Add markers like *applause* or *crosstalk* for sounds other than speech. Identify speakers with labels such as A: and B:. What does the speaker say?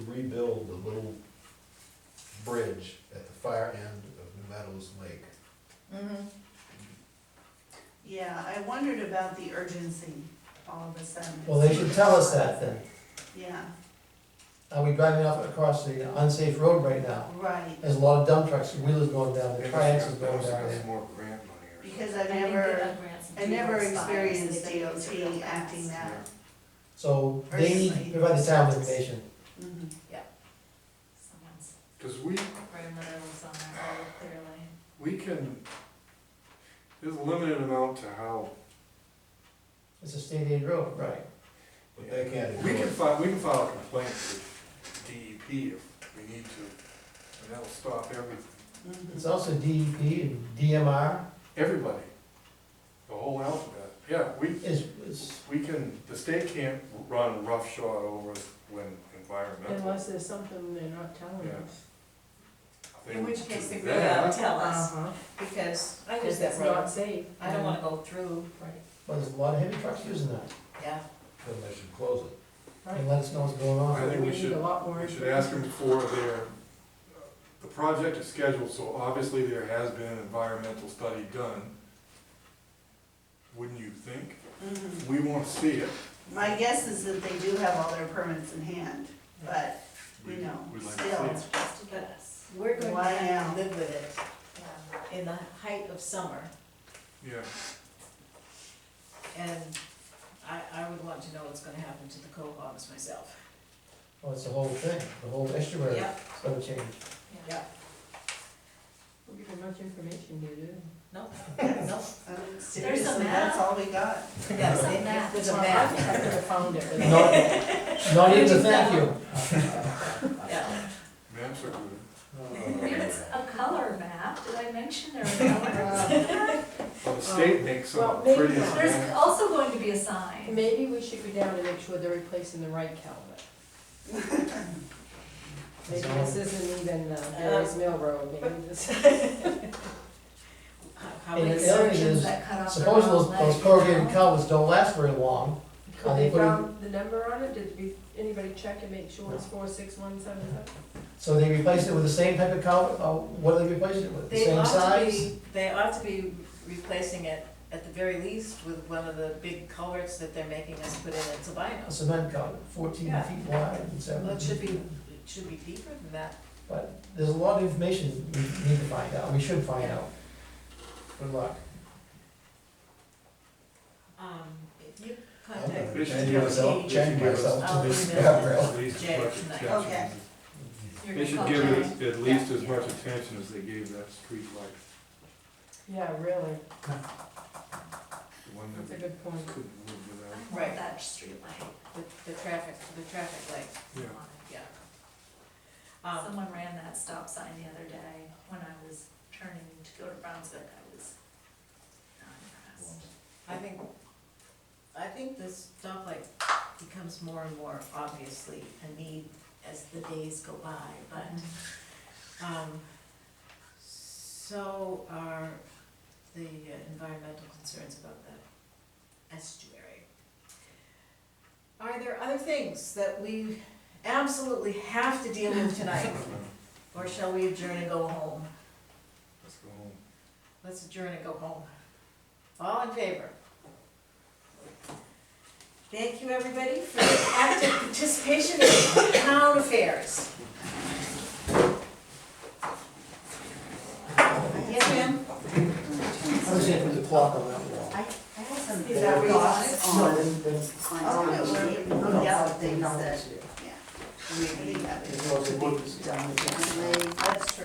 A: rebuild the little bridge at the far end of New Meadows Lake.
B: Mhm. Yeah, I wondered about the urgency all of a sudden.
C: Well, they should tell us that then.
B: Yeah,
C: Are we driving up across the unsafe road right now?
B: right,
C: There's a lot of dump trucks, wheelers going down, the
D: They must
C: triax
D: have-
C: is
D: they
C: going
D: must have
C: down.
D: got some more grant money or something.
B: because I've
E: I think they
B: never,
E: got grants and
B: I never
E: people inspired, so
B: experienced
E: they think it's a real
B: DOT acting
E: fast.
B: that.
C: So they need to provide the town with information.
B: Mhm.
E: Someone's
D: Cause we,
E: wrote another one's on that road, clearly.
D: we can, there's a limited amount to how,
C: It's a state aid road, right?
A: But they can't
D: we
A: ignore
D: can
A: it.
D: file, we can file a complaint with DEP if we need to, and that'll stop every,
B: Mhm.
C: It's also DEP and DMR
D: everybody, the whole alphabet. Yeah, we,
C: is, is,
D: we can, the state can't run roughshod over us when environmental.
F: Unless there's something they're not telling
D: Yeah.
F: us.
D: they
E: In
D: would
E: which case
D: do
E: they really
D: that.
E: ought to tell us,
F: Uh-huh.
E: because,
F: I
E: because
F: think
E: that
F: it's
E: road,
F: not safe.
E: I
B: Mm-hmm.
E: don't wanna go through, right,
C: well, there's a lot of heavy trucks using that.
E: yeah.
A: Then they should close it.
C: And let us know what's going
D: I
C: on.
D: think we
F: need
D: should-
F: a lot more
D: We should ask
F: information.
D: them for their, the project is scheduled, so obviously there has been an environmental study done. Wouldn't you think?
B: Mhm.
D: We wanna see it.
B: My guess is that they do have all their permits in hand, but,
D: We-
B: you know,
D: we'd like to see
B: still,
D: it.
E: Just to get us. We're going to
B: Why
E: have
B: now?
E: to live with it, um, in the height of summer,
D: Yeah,
E: and I, I would want to know what's gonna happen to the cohogs myself.
C: Well, Oh, it's the whole thing, the whole estuary is
E: Yeah,
C: gonna change.
E: yeah,
F: We're getting much information here, do
E: no, *laughs* no,
B: um,
E: There's a
B: seriously,
E: map.
B: that's all we got.
E: yes, it- it was a
F: I
E: map,
F: could have found it. but-
C: Not, not even a thank you.
E: *laughs* yeah.
D: maps are good.
G: It's a color map, did I mention there
E: *laughs*
G: are
E: Uh,
G: colors?
D: Well, the state makes some
F: Well, maybe
D: pretty.
F: not.
G: There's
D: maps.
G: also going to be a sign.
F: Maybe we should go down and make sure they're replacing the right culvert. Maybe this isn't even uh, Barry's Mill Road, maybe *laughs* this.
E: How- How
C: And
E: many
C: the other thing
E: surgeons
C: is-
E: that cut off their
C: Suppose
E: own
C: those,
E: leg,
C: those corrugated
E: you know?
C: culverts don't last very long. Are
F: Could
C: they
F: they
C: putting-
F: found the number on it? Did we- anybody check and make sure it's four six one seven seven?
C: So they replaced it with the same type of culvert, or what do they replace it with? The
E: They
C: same
E: ought to
C: size?
E: be, they ought to be replacing it at the very least with one of the big culverts that they're making us put in at
C: A
E: Sabino's.
C: cement culvert, fourteen
E: Yeah.
C: feet wide and seven.
E: Well, it should be,
C: feet-
E: it should be deeper than that.
C: But there's a lot of information we need to find out, we should find out. Good luck.
E: Um, if you
A: I'm
E: contact
A: gonna
D: They should
A: change
D: do it.
A: myself, change myself
E: I'll
A: to this
E: email
A: guardrail.
E: them.
D: At least as
E: Jay,
D: much
E: tonight.
D: attention.
B: Okay.
E: you're
D: They
E: gonna
D: should
E: call
D: give
E: Jay.
D: it at least as
E: Yeah.
D: much attention as they gave that street light,
F: Yeah, really.
D: the one
F: That's a
D: that
F: good point.
D: couldn't live
G: I
D: without.
E: Right.
G: want that streetlight.
E: The, the traffic, the traffic light,
D: Yeah,
E: yeah. Um,
G: Someone ran that stop sign the other day when I was turning to go to Brownsville, I was not impressed.
E: I think, I think this stoplight becomes more and more obviously a need as the days go by, but Um, so are the environmental concerns about the estuary. Are there other things that we absolutely have to deal with tonight? Or shall we adjourn and go home?
D: let's go home.
E: Let's adjourn and go home. All in favor? Thank you, everybody, for your active participation in town affairs. Yes, ma'am?
C: I was gonna put the clock on that wall.
B: Is that where you want it?
C: No, then- then-
B: Oh, no, we're-
C: no, no,
B: yeah,
C: no,
B: things
C: no,
B: that-
C: it's here.
B: We have it.
C: It's always- it's down the-
B: That's true.